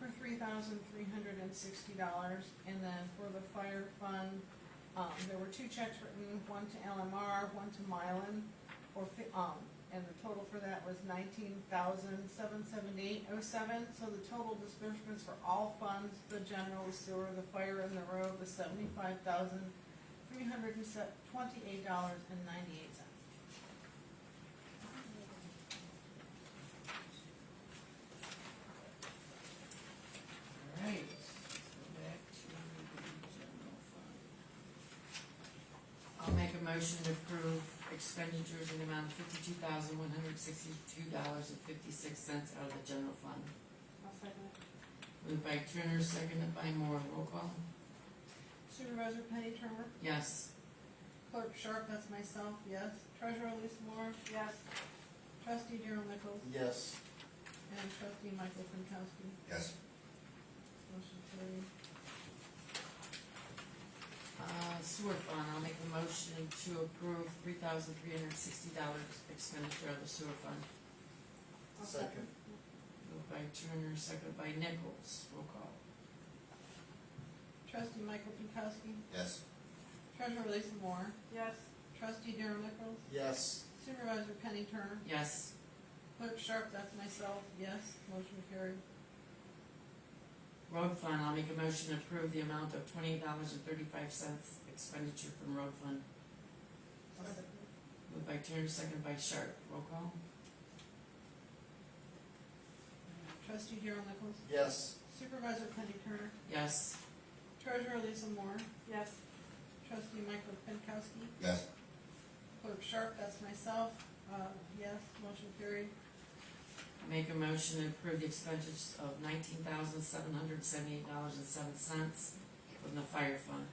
for three thousand three hundred and sixty dollars. And then for the fire fund, um, there were two checks written, one to LMR, one to Mylan, for, fi- um, and the total for that was nineteen thousand seven seventy-eight oh seven. So the total disbursements for all funds, the general, the sewer, the fire, and the road was seventy-five thousand three hundred and twenty-eight dollars and ninety-eight cents. Alright, so back to the general fund. I'll make a motion to approve expenditures in the amount of fifty-two thousand one hundred sixty-two dollars and fifty-six cents out of the general fund. I'll second it. Moved by Turner, seconded by Moore, roll call. Supervisor Penny Turner? Yes, Clerk Sharp, that's myself, yes. Treasurer Lisa Moore? Yes. Trustee Daryl Nichols Yes. and trustee Michael Pinkowski. Yes. Motion carried. uh, sewer fund, I'll make a motion to approve three thousand three hundred sixty dollars expenditure out of the sewer fund. I'll Second. Moved by Turner, seconded by Nichols, roll call. Trustee Michael Pinkowski. Yes. Treasurer Lisa Moore? Yes. Trustee Daryl Nichols? Yes. Supervisor Penny Turner? Yes, Clerk Sharp, that's myself, yes. Motion carried. road fund, I'll make a motion to approve the amount of twenty-eight dollars and thirty-five cents expenditure from road fund. I'll second. Moved by Turner, seconded by Sharp, roll call. Trustee Daryl Nichols? Yes. Supervisor Penny Turner? Yes, Treasurer Lisa Moore? Yes. Trustee Michael Pinkowski? Yes. Clerk Sharp, that's myself, uh, yes, motion carried. make a motion to approve the expenditures of nineteen thousand seven hundred seventy-eight dollars and seven cents from the fire fund.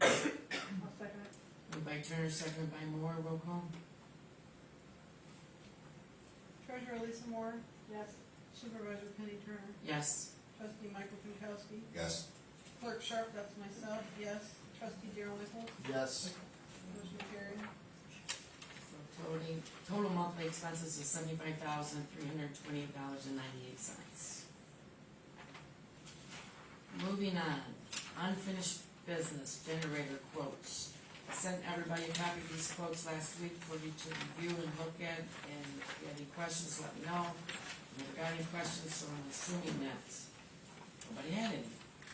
I'll second it. Moved by Turner, seconded by Moore, roll call. Treasurer Lisa Moore? Yes. Supervisor Penny Turner? Yes, Trustee Michael Pinkowski? Yes. Clerk Sharp, that's myself, yes. Trustee Daryl Nichols? Yes. Motion carried. so total, total monthly expenses is seventy-five thousand three hundred twenty-eight dollars and ninety-eight cents. Moving on, unfinished business generator quotes. I Sent everybody a copy of these quotes last week for you to review and look at, and if you have any questions, let me know. Never got any questions, so I'm assuming that nobody had any,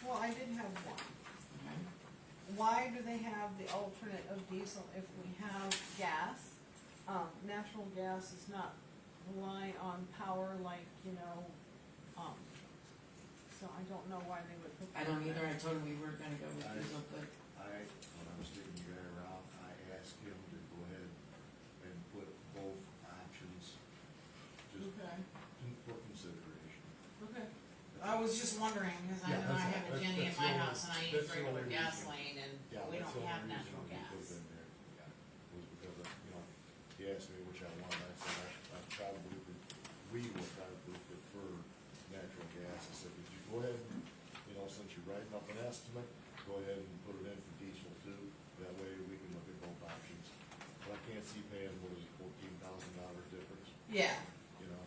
Well, I did have one. alright? Why do they have the alternate of diesel if we have gas? Um, natural gas does not rely on power like, you know, um, so I don't know why they would put that. I don't either, I told him we were gonna go with diesel, but I, when I was getting you guys around, I asked him to go ahead and put both options, just Okay, for consideration. okay. I was just wondering, cause I Yeah, know I that's- have a that's- Jenny in that's my the only- house and I use that's the regular only reason. gasoline Yeah, and we don't that's the only have reason natural we put gas. them there, yeah, Was because, of, you know, he asked me which I wanted, I said, I, I probably would, we would probably prefer natural gas, I said, would you go ahead and, you know, since you're writing up an estimate, go ahead and put it in for diesel too, that way we can look at both options. But I can't see paying, what is it, fourteen thousand dollar difference, Yeah, you know?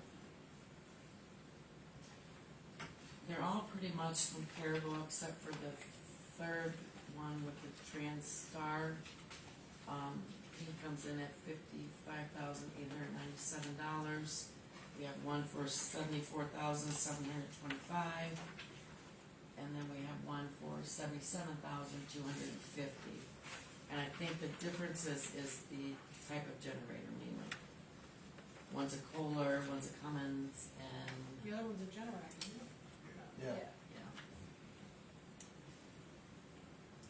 they're all pretty much comparable except for the third one with the Transtar. Um, he comes in at fifty-five thousand eight hundred ninety-seven dollars. We have one for seventy-four thousand seven hundred twenty-five. And then we have one for seventy-seven thousand two hundred and fifty. And I think the difference is, is the type of generator mainly. One's a Kohler, one's a Cummins, and The other one's a generator, isn't it? Yeah. yeah,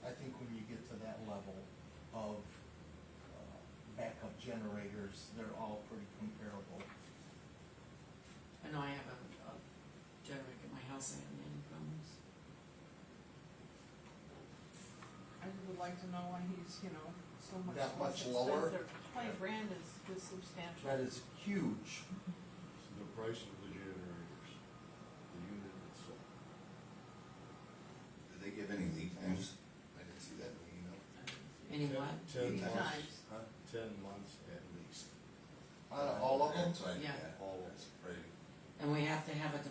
I think when you get to that level of uh, backup generators, they're all pretty comparable. I know I have a, a generator at my house, I have many problems. I would like to know why he's, you know, so much. That much less lower? expensive. Twenty grand is, is That substantial. is huge. The price of the generators, the unit itself. Did they give any lead times? I didn't see that in the email. Any Ten- what? Ten Eight months, times. huh? ten months at least, Out of all of them? That's like, Yeah. yeah, all of that's it. pretty. And we have to have a